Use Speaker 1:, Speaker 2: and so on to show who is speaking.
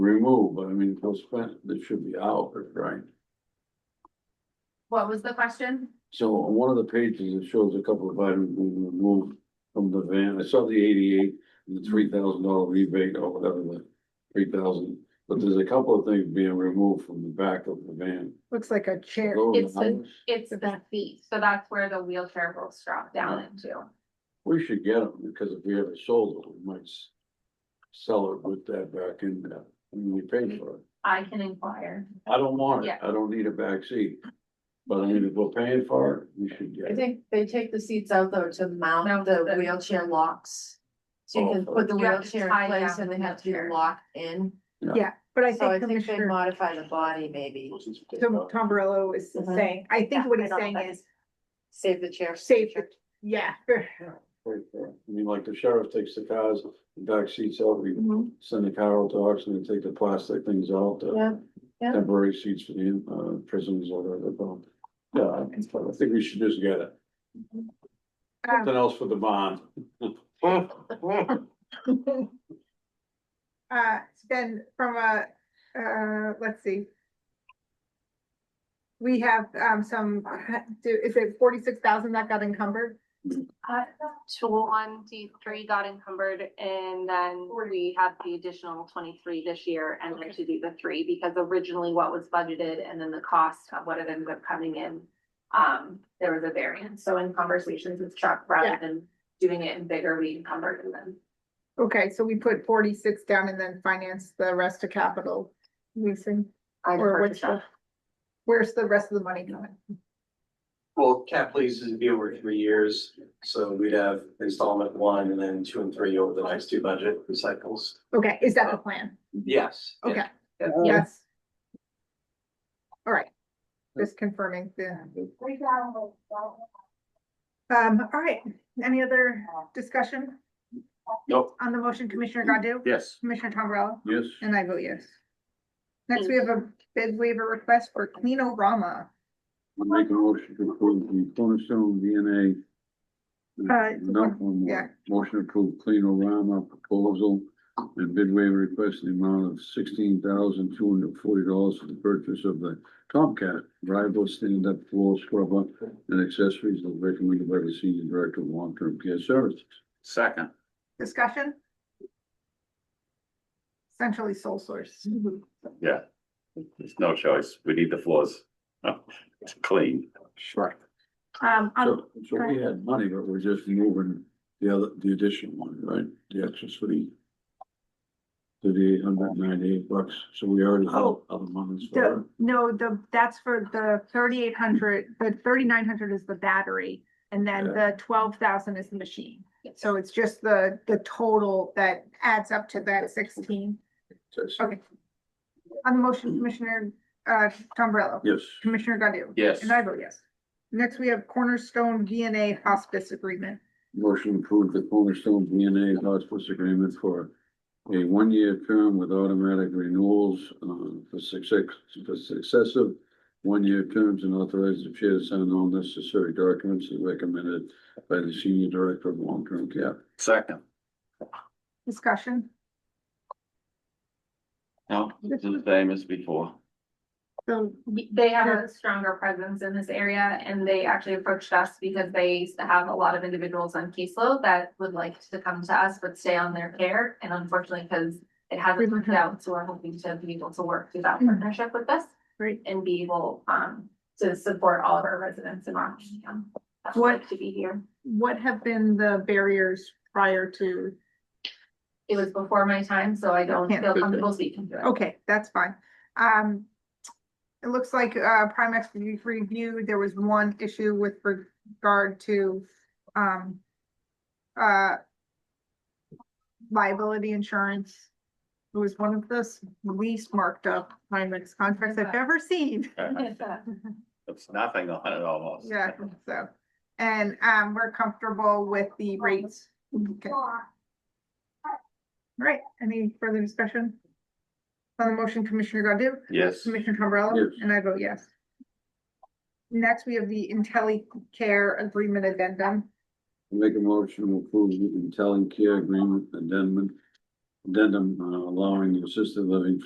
Speaker 1: remove, but I mean, those fence, that should be out, right?
Speaker 2: What was the question?
Speaker 1: So on one of the pages, it shows a couple of items being removed from the van. I saw the eighty-eight, and the three thousand dollar rebate or whatever, the three thousand. But there's a couple of things being removed from the back of the van.
Speaker 3: Looks like a chair.
Speaker 1: Those
Speaker 2: It's the-
Speaker 1: hours,
Speaker 2: It's the feet, so that's where the wheelchair will drop down
Speaker 3: Mm-hmm.
Speaker 2: into.
Speaker 1: We should get them, because if we ever sold it, we might s- sell it with that back in there, and we paid for it.
Speaker 2: I can inquire.
Speaker 1: I don't want it,
Speaker 2: Yeah.
Speaker 1: I don't need a backseat. But I mean, if we're paying for it, we should get
Speaker 4: I
Speaker 1: it.
Speaker 4: think they take the seats out though to
Speaker 2: No,
Speaker 4: mount the
Speaker 2: the-
Speaker 4: wheelchair locks. So you can
Speaker 1: Oh.
Speaker 4: put the
Speaker 2: You have to
Speaker 4: wheelchair
Speaker 2: tie
Speaker 4: in place
Speaker 2: down
Speaker 4: and they
Speaker 2: the
Speaker 4: have to be
Speaker 2: wheelchair.
Speaker 4: locked in.
Speaker 3: Yeah, but I
Speaker 4: So I
Speaker 3: think
Speaker 4: think they
Speaker 3: Commissioner
Speaker 4: modify the body maybe,
Speaker 3: Tom Tombrello is
Speaker 4: Mhm.
Speaker 3: saying, I think
Speaker 4: Yeah,
Speaker 3: what
Speaker 4: I
Speaker 3: he's
Speaker 4: don't
Speaker 3: saying
Speaker 4: think-
Speaker 3: is,
Speaker 4: save the chair.
Speaker 3: Save the- yeah.
Speaker 1: Right there. I mean, like the sheriff takes the cars, the back seats out, we
Speaker 3: Mm-hmm.
Speaker 4: Mhm.
Speaker 1: send the car out to auction and take the plastic things out, the
Speaker 4: Yeah, yeah.
Speaker 1: temporary seats for the uh, prisons or whatever. they're called. Yeah, I- I think we should just get it.
Speaker 3: Um,
Speaker 1: Something else for the bond.
Speaker 3: Uh, then from a, uh, let's see. We have, um, some, do, is it forty-six thousand that got encumbered?
Speaker 2: Two one, D three got encumbered and then we had the additional twenty-three this year and then to do the three because originally what was budgeted and then the cost of what it ended up coming in. Um, there was a variance, so in conversations with Chuck, rather
Speaker 3: Yeah.
Speaker 2: than doing it in bigger, we encumbered and then.
Speaker 3: Okay, so we put forty-six down and then finance the rest of capital leasing,
Speaker 2: I
Speaker 3: or
Speaker 2: defer to
Speaker 3: what's
Speaker 2: Chuck.
Speaker 3: the? Where's the rest of the money going?
Speaker 5: Well, cap leases would be over three years, so we'd have installment one and then two and three over the next two budget cycles.
Speaker 3: Okay, is that the plan?
Speaker 5: Yes. yeah.
Speaker 3: Okay,
Speaker 5: Yeah.
Speaker 3: yes. All right, just confirming the. Um, all right, any other discussion?
Speaker 5: Nope.
Speaker 3: On the motion, Commissioner Godu?
Speaker 1: Yes.
Speaker 3: Commissioner Tom Morello?
Speaker 1: Yes.
Speaker 3: And I vote yes. Next, we have a bid waiver request for Cleanorama.
Speaker 1: I Make a motion to approve the Cornerstone DNA.
Speaker 3: Uh, it's
Speaker 1: No,
Speaker 3: one-
Speaker 1: one
Speaker 3: yeah.
Speaker 1: more. Motion to approve clean Orama proposal and bid waiver request in the amount of sixteen thousand two hundred forty dollars for the purchase of the Tomcat driveway stand-up floor scrubber and accessories as recommended by the senior director of long-term care services.
Speaker 6: Second,
Speaker 3: Discussion? Essentially sole source.
Speaker 6: there's no choice. We need the floors uh, clean.
Speaker 1: Sure.
Speaker 3: Um, on-
Speaker 1: So, so we had money, but we're just moving the other, the additional one, right? The extras for the thirty-eight hundred ninety-eight bucks, so we already have
Speaker 3: Oh.
Speaker 1: other monies for it.
Speaker 3: The, no, the, that's for the thirty-eight hundred, the thirty-nine hundred is the battery, and then the twelve thousand is the machine. So it's just the, the total that adds up to that sixteen.
Speaker 1: Just-
Speaker 3: Okay. On the
Speaker 6: Mm-hmm.
Speaker 3: motion, Commissioner, uh, Tombrello.
Speaker 1: Yes.
Speaker 3: Commissioner Godu.
Speaker 6: Yes.
Speaker 3: And I vote yes. Next, we have Cornerstone DNA Hospice Agreement.
Speaker 1: Motion approved the Cornerstone DNA hospice agreement for a one-year term with automatic renewals um, for success, for successive one-year terms and authorize the chair to sign all necessary documents as recommended by the senior director of long-term care.
Speaker 6: Second,
Speaker 3: Discussion.
Speaker 6: no, it's the same as before.
Speaker 3: So
Speaker 2: they have a stronger presence in this area and they actually approached us because they used to have a lot of individuals on caseload that would like to come to us but stay on their care. And unfortunately, because it hasn't worked out, so we're hoping to be able to work through that partnership with us
Speaker 3: Hmm. Great.
Speaker 2: and be able um to support all of our residents in Rockingham. that would like To be here.
Speaker 3: what have been the barriers prior to
Speaker 2: It was before my time, so I don't
Speaker 3: Can't
Speaker 2: feel
Speaker 3: Oh.
Speaker 1: do that.
Speaker 2: comfortable speaking to it.
Speaker 3: Okay, that's fine. Um, it looks like, uh, Primex re- reviewed, there was one issue with regard to, um, uh, liability insurance. It was one of the least marked up Primex contracts I've ever seen.
Speaker 6: It's
Speaker 2: uh,
Speaker 6: nothing on it almost.
Speaker 3: Yeah, so, and, um, we're comfortable with the rates. Okay. Right, any further discussion? On the motion, Commissioner Godu?
Speaker 6: Yes,
Speaker 3: Commissioner Tombrello?
Speaker 1: Yes.
Speaker 3: And I vote yes. Next, we have the IntelliCare Agreement Addendum.
Speaker 1: Make a motion to approve the IntelliCare agreement addendum, addendum uh, allowing the assisted living